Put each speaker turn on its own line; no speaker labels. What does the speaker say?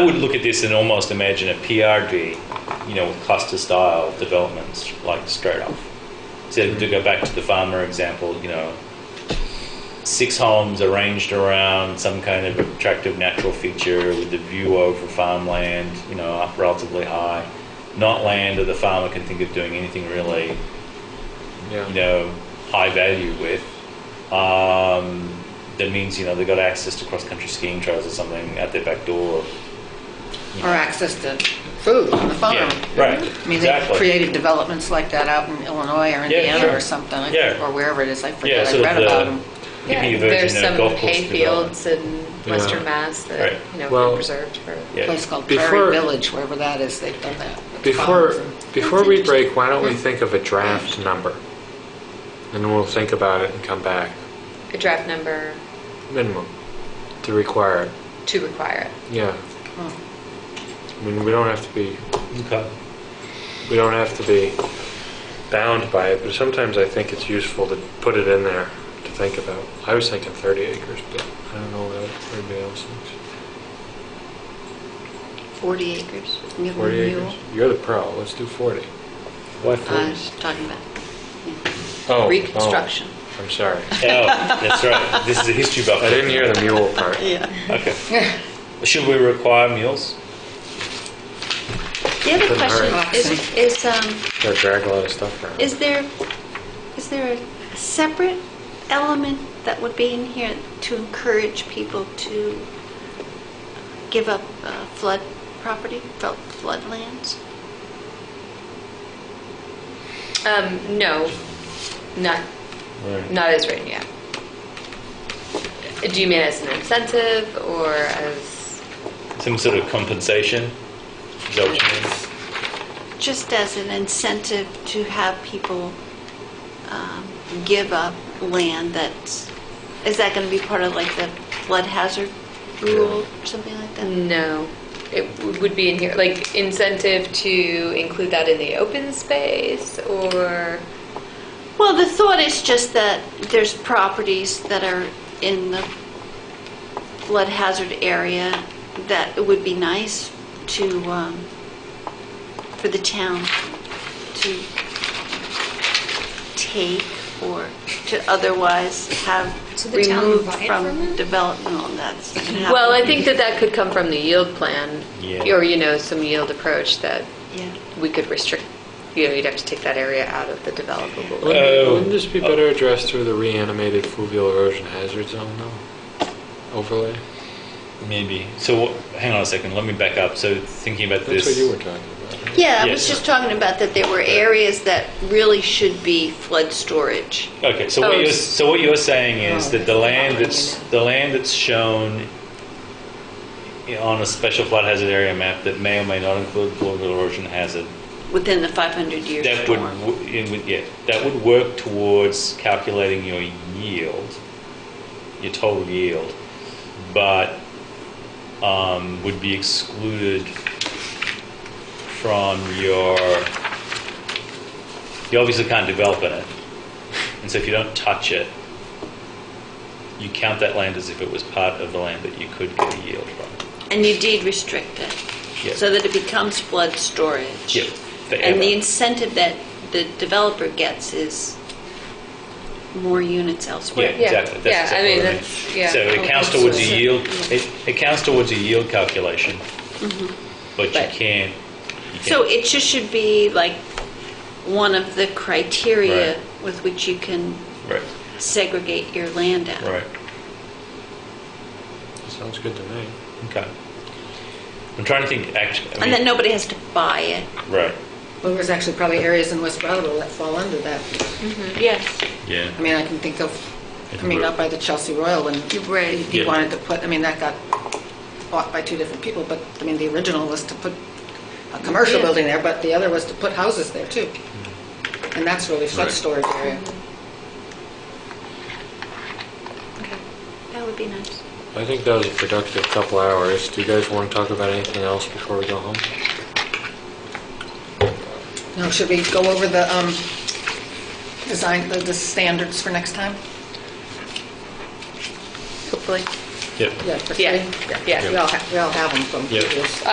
I would look at this and almost imagine a PRD, you know, with cluster style developments, like straight off. So to go back to the farmer example, you know, six homes arranged around some kind of attractive natural feature with the view over farmland, you know, up relatively high. Not land that the farmer can think of doing anything really, you know, high value with. Um, that means, you know, they got access to cross country skiing trails or something at their back door. you know.
or access to food on the farm.
Yeah, right,
I mean, they've
exactly.
created developments like that out in Illinois or Indiana
sure.
or something, I-
Yeah.
or wherever it is, I
Yeah,
forget, I
sort of
read
the-
about them.
Give me a
Yeah,
version
there's
of
some
golf course
hayfields in Western Mass
Right.
that, you know,
Well-
are preserved for.
A
Yeah.
place called
Before-
Prairie Village, wherever that is, they've done that. with
Before,
farms and-
before we break, why don't we think of a draft number? And we'll think about it and come back.
A draft number
Minimum to require it.
to require it.
Yeah.
Oh.
I mean, we don't have to be,
Okay.
we don't have to be bound by it, but sometimes I think it's useful to put it in there to think about. I was thinking 30 acres, but I don't know what everybody else thinks.
40 acres.
40
Uh,
acres? You're the pro. Let's do 40. Why
I was talking about
Oh,
Uh, reconstruction.
Oh, I'm sorry.
Oh, that's right. This is a history buff.
I didn't hear the mule part.
Yeah.
Okay. Should we require mules?
The other
Couldn't
question
hurt.
is, is, um,
Gotta drag a lot of stuff around.
is there, is there a separate element that would be in here to encourage people to give up uh, flood property, felt floodlands?
Um, no, not,
Right.
not as written yet. Do you mean as an incentive or as,
Some sort of compensation? Is that what you mean?
Just as an incentive to have people um, give up land that's, is that going to be part of like the flood hazard rule or something like
Mm-hmm.
that?
no? It w- would be in here, like incentive to include that in the open space or,
Well, the thought is just that there's properties that are in the flood hazard area that it would be nice to, um, for the town to take or to otherwise have
So the town
removed
buy it from
from
it?
development on that.
well, I think that that could come from the yield plan.
Yeah.
Or, you know, some yield approach that
Yeah.
we could restrict, you know, you'd have to take that area out of the developable.
Wouldn't,
Oh.
wouldn't this be better addressed through the reanimated fluvial erosion hazard zone, though? Overlay?
Maybe. So, what, hang on a second. Let me back up. So, thinking about
That's
this.
what you were talking about. right?
Yeah, I
Yes.
was just talking about that there were areas that really should be flood storage.
Okay. So
Oh,
what you're
it's-
so what you're saying is
Oh,
that the land
yeah.
that's the land that's shown you know, on a special flood hazard area map that may or may not include global erosion hazard
within the 500 years.
that would, w- it would yeah that would work towards calculating your yield, your total yield, but um, would be excluded from your. You obviously can't develop in it, and so if you don't touch it, you count that land as if it was part of the land that you could get a yield from.
And you deed restrict it,
Yeah.
so that it becomes flood storage.
Yeah, forever.
And the incentive that the developer gets is more units
Yeah,
elsewhere.
exactly. That's
Yeah, I
exactly
mean,
what
that's- yeah.
So
Oh,
it counts
that's
towards a
what I said.
yield, it, it counts towards a yield calculation, but you
But-
can't. you
So
can't-
it just should be like one of the criteria
Right.
with which you can
Right,
segregate your land out.
right,
Sounds good to me.
okay. I'm trying to think, actually, I
And then
mean,
nobody has to buy it.
right,
Well, there's actually probably areas in West Brattleboro that fall under that.
Mm-hmm. Yes.
yeah.
I mean, I can think of, I mean, up by the Chelsea Royal, when
Right.
he
Yeah.
wanted to put, I mean, that got bought by two different people, but, I mean, the original was to put a commercial
Yeah.
building there, but the other was to put houses there, too. And that's really flood
Hmm. Right.
storage area.
Okay, that would be nice.
I think that was a productive couple hours. Do you guys want to talk about anything else before we go home?
Now, should we go over the um, design, the the standards for next time?
Hopefully.
Yep.
Yeah, for
Yeah.
three?
Yeah.
We all, ha- we all have them from
Yeah.
previous.